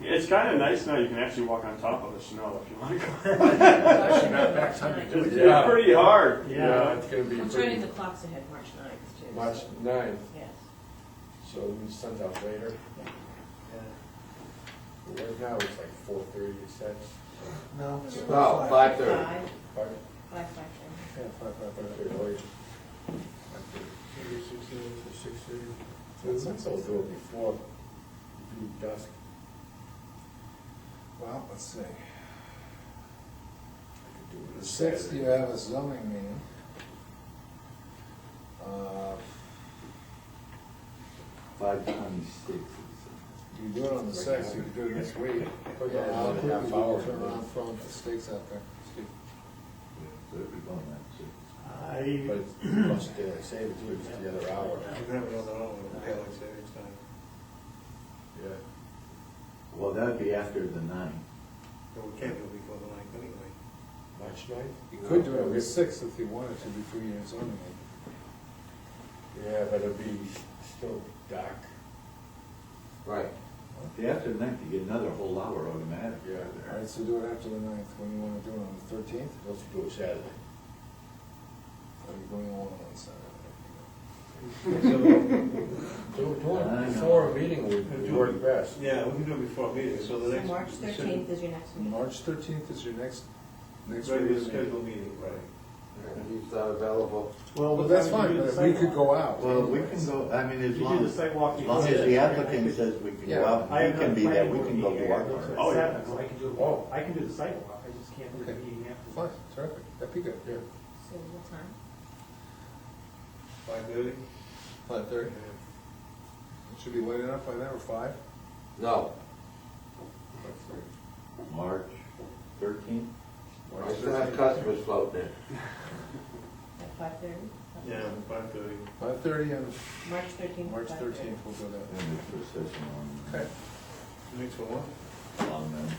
It's kind of nice now, you can actually walk on top of the snow if you want to go. Actually, not back time to do It's it. it's pretty hard. you Yeah, know. it's gonna be I'm pretty, turning the clocks ahead, March 9th, too. so- March ninth, Yes. so we sent out later. But Right now, it's like four thirty, six. No. it's No, five thirty. Five, Oh, Five, five, five, ten. Yeah, five, five, five five. thirty, oh, yeah. Five thirty. Maybe six thirty to six thirty. So since I'll do it before, do dusk, Well, let's see. I could do it. on The sixth, Saturday. you have a zoning meeting. Uh, Five twenty-six. You do it on the sixth, you can do it this week. Put that Yeah, I'll in a quickly half do hour. the turn around phone if the stakes out there. So it'd be going that six. I, But it's plus daylight savings, which is the other hour, I have it on the own, daylight savings time, yeah. Well, that'd be after the nine. but we can't do it before the ninth anyway. March ninth? You could do it on the sixth if you wanted to before your zoning meeting. Yeah, but it'll be still dark, Right. If you after the ninth, you get another whole hour automatically. Yeah. All right, so do it after the ninth, when you wanna do it, on the thirteenth, let's do it Saturday. or you going on on Saturday? Do, do I it know. before a meeting would Do it. work best. Yeah, we can do it before a meeting, so the So next. March thirteenth is your next meeting. March thirteenth is your next, next Regular regular meeting. scheduled meeting, right. And He's not available. Well, that's fine, but we could go out. Well, we can go, I mean, as You long do the as, as sidewalk. long as the applicant says we can go out, I we have can another be there, planning we board can go meeting to our here, part. Oh, yeah. so it's happening, so I can do, Oh. I can do the sidewalk, I just can't do the Okay. meeting after. Fine, terrific, that'd be good. Yeah. So what time? Five thirty? Five thirty, should be late enough by then, or five? No. March thirteenth? March customers float there. At five thirty? Yeah, five uh, thirty. Five thirty on March thirteenth. March thirteenth, we'll go And there. the procession on, Okay. Next one, what? on the.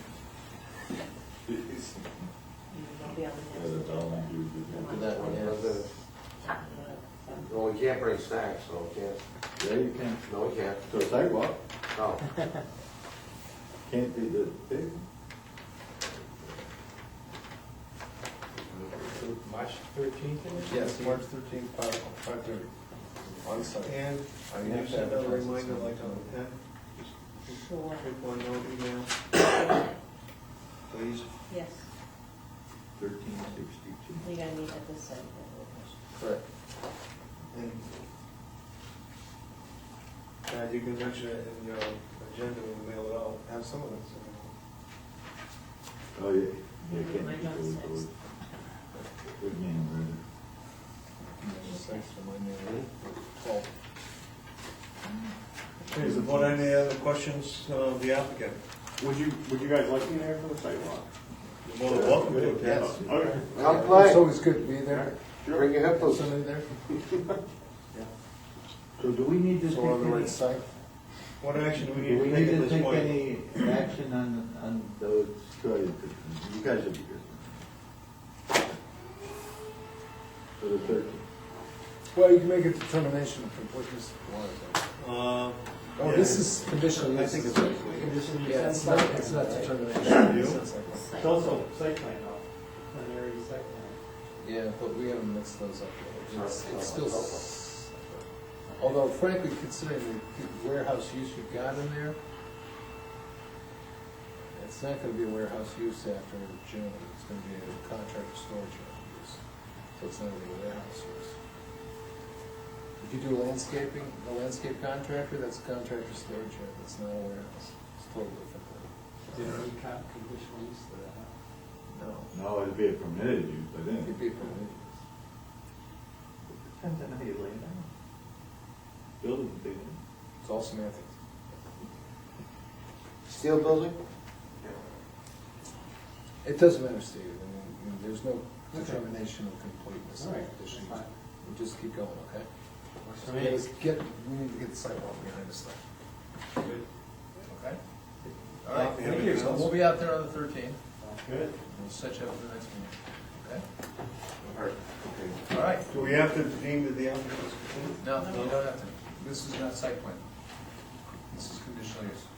I'll be on Yeah, the building, you- Do that one, yes. the Well, we can't bring snacks, so we can't, Yeah, you can, no, we can't, to a sidewalk, no. can't be the big. So March thirteenth? Yes, March thirteenth, five, five thirty. On Sunday. And I can have you to send out a advertise it reminder soon. like on the tenth, next. Sure, quick one, no oh email, please? yes, Thirteen sixty-two. we gotta meet at this site. that Correct. And Chad, you can mention it in your agenda when we mail it out. Have some of it. Oh, yeah. Yeah, Yeah, can't mine be on those, six. those. Good man, really. Thanks for my name. Twelve. Okay, is the board any other questions of the applicant? Would you, would you guys like me there for the sidewalk? You're more than welcome to. Yes. Okay, Come It's play, always good to be there. bring your hippos. Somebody there, So do we need to take so we're on the right any, side. What action do we do we need to need take to at this take point? any action on, on those, good, you guys are good. For the thirteen. Well, you can make a determination of completeness. if you want to. Uh, Oh, yeah. this is conditional I use. think it's Yeah, it's not, it's not determination. You? It's like- was- It's also site plan though, an area site plan. Yeah, but we haven't mixed those up yet. It's, it's still, s- although frankly, considering the warehouse use you've got in there, it's not gonna be a warehouse use after June, it's gonna be a contractor storage use. So it's not gonna be a warehouse use. If you do landscaping, a landscape contractor, that's a contractor storage yard, that's not a warehouse, it's totally different. Did any kind of conditional use to that? No. No, it'd be a permitted use, I think. It'd be permitted. Depends on how you lay it out. Building, big one. it's all semantics. Steel building? It doesn't matter, Steve, I mean, I mean, there's no determination of completeness of All right, conditions. that's fine. We'll just keep going, okay? Works for me. Let's get, we need to get the sidewalk behind us though. Okay? All right, Thank you. so we'll be out there on the thirteenth, Sounds good. we'll set you up for the next meeting, All right. okay? All right, Do we have to deem that the applicant is complete? no, you don't have to, this is not site plan. This is conditional use.